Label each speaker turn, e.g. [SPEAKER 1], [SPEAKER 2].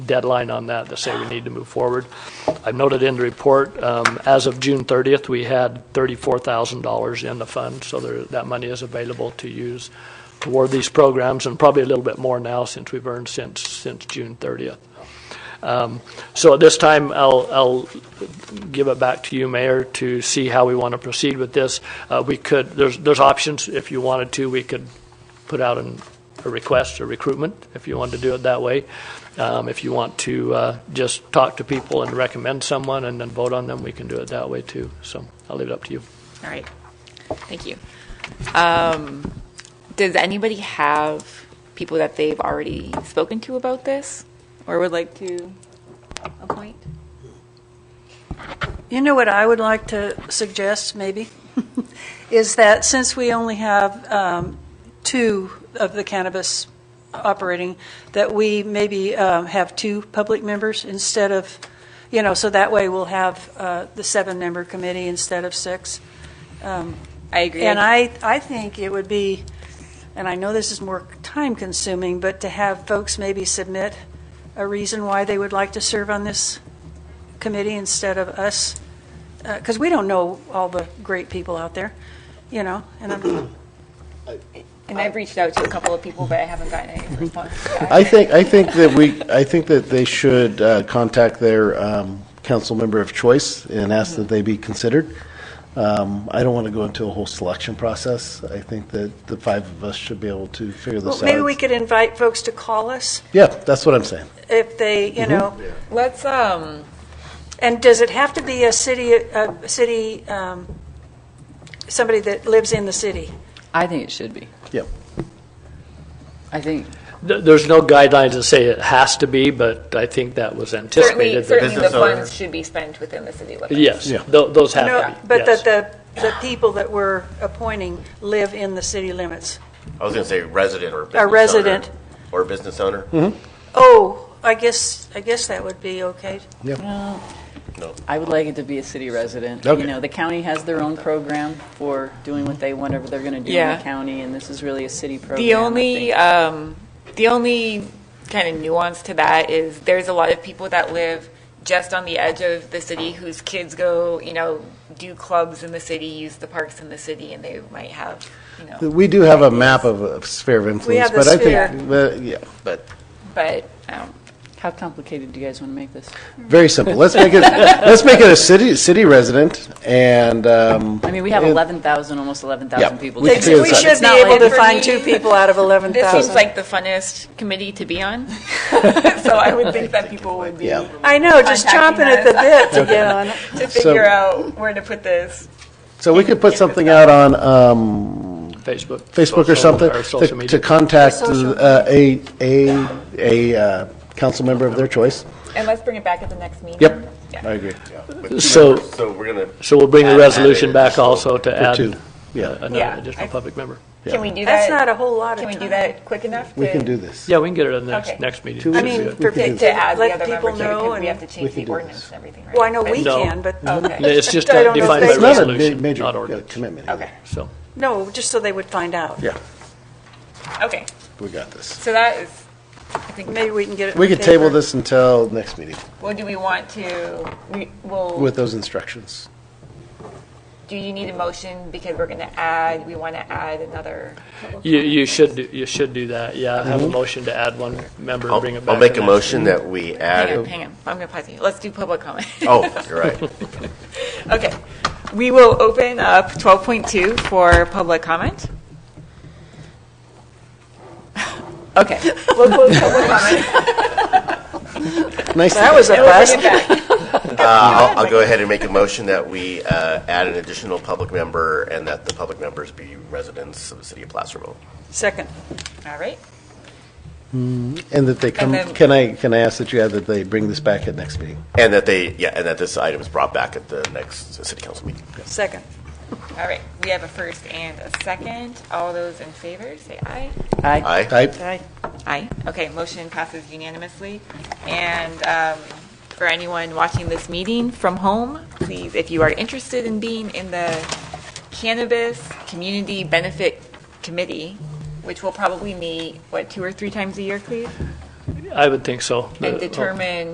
[SPEAKER 1] deadline on that to say we need to move forward. I've noted in the report, um, as of June 30th, we had $34,000 in the fund, so there, that money is available to use toward these programs, and probably a little bit more now since we've earned since, since June 30th. Um, So at this time, I'll, I'll give it back to you, Mayor, to see how we want to proceed with this. Uh, We could, there's, there's options. If you wanted to, we could put out an, a request, a recruitment, if you wanted to do it that way. Um, If you want to uh, just talk to people and recommend someone and then vote on them, we can do it that way too. So I'll leave it up to you.
[SPEAKER 2] All right. Thank you. Um, does anybody have people that they've already spoken to about this or would like to appoint?
[SPEAKER 3] You know what I would like to suggest, maybe, is that since we only have um, two of the cannabis operating, that we maybe um, have two public members instead of, you know, so that way we'll have uh, the seven-member committee instead of six.
[SPEAKER 2] I agree.
[SPEAKER 3] And I, I think it would be, and I know this is more time-consuming, but to have folks maybe submit a reason why they would like to serve on this committee instead of us, because we don't know all the great people out there, you know, and I'm,
[SPEAKER 2] and I've reached out to a couple of people, but I haven't gotten any response.
[SPEAKER 4] I think, I think that we, I think that they should uh, contact their um, council member of choice and ask that they be considered. Um, I don't want to go into a whole selection process. I think that the five of us should be able to figure
[SPEAKER 3] well,
[SPEAKER 4] this out.
[SPEAKER 3] maybe we could invite folks to call us
[SPEAKER 4] Yeah, that's what I'm saying.
[SPEAKER 3] if they, you know,
[SPEAKER 2] Let's, um,
[SPEAKER 3] and does it have to be a city, a city, um, somebody that lives in the city?
[SPEAKER 5] I think it should be.
[SPEAKER 4] Yep.
[SPEAKER 5] I think,
[SPEAKER 1] Th- There's no guidelines that say it has to be, but I think that was
[SPEAKER 2] certainly,
[SPEAKER 1] anticipated. that-
[SPEAKER 2] certainly the funds should be spent within the city limits.
[SPEAKER 1] Yes,
[SPEAKER 4] Yeah.
[SPEAKER 1] tho- those have to
[SPEAKER 3] No,
[SPEAKER 1] be.
[SPEAKER 3] but
[SPEAKER 1] yes.
[SPEAKER 3] that the, the people that we're appointing live in the city limits.
[SPEAKER 6] I was going to say resident or business
[SPEAKER 3] A resident.
[SPEAKER 6] owner. Or business owner?
[SPEAKER 1] Mm-hmm.
[SPEAKER 3] Oh, I guess, I guess that would be okay.
[SPEAKER 5] I would like it to be a city resident.
[SPEAKER 4] Okay.
[SPEAKER 5] You know, the county has their own program for doing what they, whatever they're going to do in
[SPEAKER 2] Yeah.
[SPEAKER 5] the county, and this is really a city program.
[SPEAKER 2] The
[SPEAKER 5] I
[SPEAKER 2] only,
[SPEAKER 5] think.
[SPEAKER 2] um, the only kind of nuance to that is there's a lot of people that live just on the edge of the city whose kids go, you know, do clubs in the city, use the parks in the city, and they might have, you know,
[SPEAKER 4] We do have a map of a sphere of influence.
[SPEAKER 3] have the
[SPEAKER 4] but I
[SPEAKER 3] sphere.
[SPEAKER 4] think, but, yeah,
[SPEAKER 6] But
[SPEAKER 2] but, um,
[SPEAKER 5] How complicated do you guys want to make this?
[SPEAKER 4] very simple. Let's make it, let's make it a city, city resident and, um,
[SPEAKER 5] I mean, we have
[SPEAKER 4] Yeah.
[SPEAKER 5] 11,000, almost 11,000 people.
[SPEAKER 4] we
[SPEAKER 5] to
[SPEAKER 4] can
[SPEAKER 5] do
[SPEAKER 4] figure
[SPEAKER 5] this.
[SPEAKER 4] this out.
[SPEAKER 5] It's not like-
[SPEAKER 2] for me-
[SPEAKER 3] out of
[SPEAKER 2] this seems like the funnest committee to be on. So I would think that people would be,
[SPEAKER 4] Yeah.
[SPEAKER 2] to
[SPEAKER 3] I know, just chomping
[SPEAKER 2] contacting
[SPEAKER 3] at the bit to get on it.
[SPEAKER 2] figure out where to put this.
[SPEAKER 4] so we could put something out on, um,
[SPEAKER 1] Facebook.
[SPEAKER 4] Facebook
[SPEAKER 1] Social-
[SPEAKER 4] or something,
[SPEAKER 1] or social
[SPEAKER 4] to-
[SPEAKER 1] media.
[SPEAKER 4] to contact uh, a, a, a uh, council member of their choice.
[SPEAKER 2] And let's bring it back at the next meeting.
[SPEAKER 4] Yep,
[SPEAKER 2] Yeah.
[SPEAKER 4] I agree.
[SPEAKER 6] with two
[SPEAKER 1] So-
[SPEAKER 6] members, so we're going to.
[SPEAKER 1] So we'll bring the
[SPEAKER 6] Add-
[SPEAKER 1] resolution
[SPEAKER 6] add
[SPEAKER 1] back
[SPEAKER 6] additional-
[SPEAKER 1] also to add
[SPEAKER 4] two, yeah.
[SPEAKER 1] uh,
[SPEAKER 2] Yeah,
[SPEAKER 1] another additional
[SPEAKER 2] I-
[SPEAKER 1] public member.
[SPEAKER 2] Can we do that?
[SPEAKER 3] That's not a whole lot of
[SPEAKER 2] Can we do
[SPEAKER 3] time.
[SPEAKER 2] that quick enough?
[SPEAKER 4] We
[SPEAKER 2] to-
[SPEAKER 4] can do this.
[SPEAKER 1] Yeah, we can get it in the
[SPEAKER 2] Okay.
[SPEAKER 1] next, next meeting.
[SPEAKER 4] Two
[SPEAKER 1] Should
[SPEAKER 3] I
[SPEAKER 1] be
[SPEAKER 3] mean,
[SPEAKER 1] good.
[SPEAKER 3] for
[SPEAKER 4] can
[SPEAKER 3] people
[SPEAKER 4] do
[SPEAKER 2] to add
[SPEAKER 3] to
[SPEAKER 2] the other
[SPEAKER 3] let
[SPEAKER 2] member
[SPEAKER 3] people
[SPEAKER 2] too,
[SPEAKER 3] know,
[SPEAKER 2] because we have to
[SPEAKER 3] and,
[SPEAKER 4] We
[SPEAKER 2] change
[SPEAKER 4] can
[SPEAKER 2] the
[SPEAKER 4] do
[SPEAKER 2] ordinance
[SPEAKER 4] this.
[SPEAKER 2] and everything, right?
[SPEAKER 3] well, I know we
[SPEAKER 1] No.
[SPEAKER 3] can, but,
[SPEAKER 1] Yeah,
[SPEAKER 2] Okay,
[SPEAKER 1] It's just
[SPEAKER 3] I don't know if
[SPEAKER 1] defined by
[SPEAKER 3] they-
[SPEAKER 4] It's not a ma-
[SPEAKER 1] resolution,
[SPEAKER 4] major
[SPEAKER 1] not
[SPEAKER 4] uh,
[SPEAKER 1] ordinance.
[SPEAKER 4] commitment.
[SPEAKER 2] okay,
[SPEAKER 1] So,
[SPEAKER 3] no, just so they would find out.
[SPEAKER 4] Yeah,
[SPEAKER 2] okay.
[SPEAKER 4] we got this.
[SPEAKER 2] So that is, I think,
[SPEAKER 3] Maybe we can get it.
[SPEAKER 4] We
[SPEAKER 3] in
[SPEAKER 4] could table
[SPEAKER 3] paper.
[SPEAKER 4] this until next meeting
[SPEAKER 2] well, do we want to, we, well,
[SPEAKER 4] with those instructions.
[SPEAKER 2] do you need a motion because we're going to add, we want to add another?
[SPEAKER 1] you, you should, do- you should do that, yeah. Have a motion to add one member and bring it
[SPEAKER 6] Mm-hmm.
[SPEAKER 1] back.
[SPEAKER 6] I'll I'll make
[SPEAKER 1] the
[SPEAKER 6] a
[SPEAKER 1] next-
[SPEAKER 6] motion that we
[SPEAKER 2] Hang on,
[SPEAKER 6] add,
[SPEAKER 2] hang on, I'm going to pause you. Let's do public comment.
[SPEAKER 6] oh, you're right.
[SPEAKER 2] Okay, we will open up 12.2 for public comment. Okay, we'll close public comment.
[SPEAKER 4] Nice.
[SPEAKER 3] That was a bust.
[SPEAKER 6] I'll, I'll go ahead and make a motion that we uh, add an additional public member and that the public members be residents of the city of Placerville.
[SPEAKER 3] Second.
[SPEAKER 2] All right,
[SPEAKER 4] And that they come,
[SPEAKER 2] then-
[SPEAKER 4] can I, can I ask that you add that they bring this back at next meeting?
[SPEAKER 6] And that they, yeah, and that this item is brought back at the next city council meeting.
[SPEAKER 3] Second.
[SPEAKER 2] all right, we have a first and a second. All those in favor, say aye.
[SPEAKER 5] Aye.
[SPEAKER 6] Aye?
[SPEAKER 4] Type?
[SPEAKER 2] Aye. Okay, motion passes unanimously. And um, for anyone watching this meeting from home, please, if you are interested in being in the Cannabis Community Benefit Committee, which will probably meet, what, two or three times a year, please?
[SPEAKER 7] I would think so.
[SPEAKER 1] and
[SPEAKER 7] The-
[SPEAKER 1] Uh, Oh, determine